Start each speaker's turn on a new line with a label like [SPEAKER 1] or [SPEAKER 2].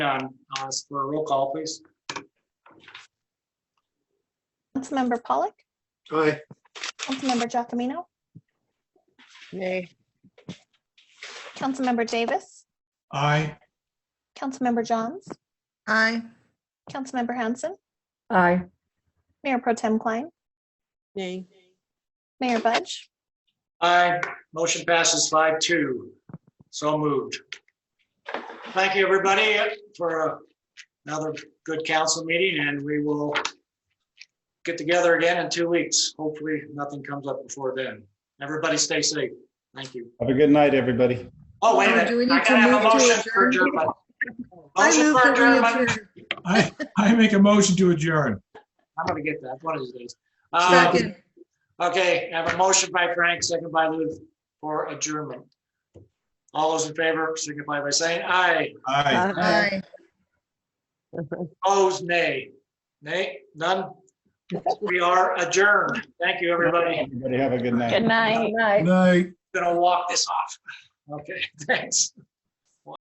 [SPEAKER 1] on, I'll ask uh, for a roll call, please.
[SPEAKER 2] Councilmember Pollock,
[SPEAKER 3] Aye.
[SPEAKER 2] Councilmember Giacominno,
[SPEAKER 4] Nay.
[SPEAKER 2] Councilmember Davis,
[SPEAKER 3] Aye.
[SPEAKER 2] Councilmember Johns,
[SPEAKER 4] Aye.
[SPEAKER 2] Councilmember Hanson,
[SPEAKER 5] Aye.
[SPEAKER 2] Mayor Pro Tem Klein,
[SPEAKER 4] Nay.
[SPEAKER 2] Mayor Budge,
[SPEAKER 1] Aye, motion passes five two. So moved. Thank you, everybody, for another good council meeting, and we will get together again in two weeks. Hopefully, nothing comes up before then. Everybody stay safe. Thank you.
[SPEAKER 6] Have a good night, everybody.
[SPEAKER 1] Oh, wait a
[SPEAKER 7] Do we
[SPEAKER 1] minute.
[SPEAKER 7] need
[SPEAKER 1] I
[SPEAKER 7] to
[SPEAKER 1] gotta have a
[SPEAKER 7] move to
[SPEAKER 1] motion for
[SPEAKER 7] adjourn?
[SPEAKER 1] adjournment.
[SPEAKER 4] I
[SPEAKER 1] Motion
[SPEAKER 4] move
[SPEAKER 1] for
[SPEAKER 4] that we
[SPEAKER 1] adjournment.
[SPEAKER 4] adjourn.
[SPEAKER 3] I, I make a motion to adjourn.
[SPEAKER 1] I'm gonna get that one of these days. Um,
[SPEAKER 4] Second.
[SPEAKER 1] Okay, I have a motion by Frank, second by Lou for adjournment. All those in favor signify by saying aye.
[SPEAKER 3] Aye.
[SPEAKER 4] Aye.
[SPEAKER 1] Opposed, nay. Nay, none. We are adjourned. Thank you, everybody.
[SPEAKER 6] Everybody have a good night.
[SPEAKER 2] good night.
[SPEAKER 5] Aye.
[SPEAKER 3] Night.
[SPEAKER 1] Gonna walk this off. Okay, thanks.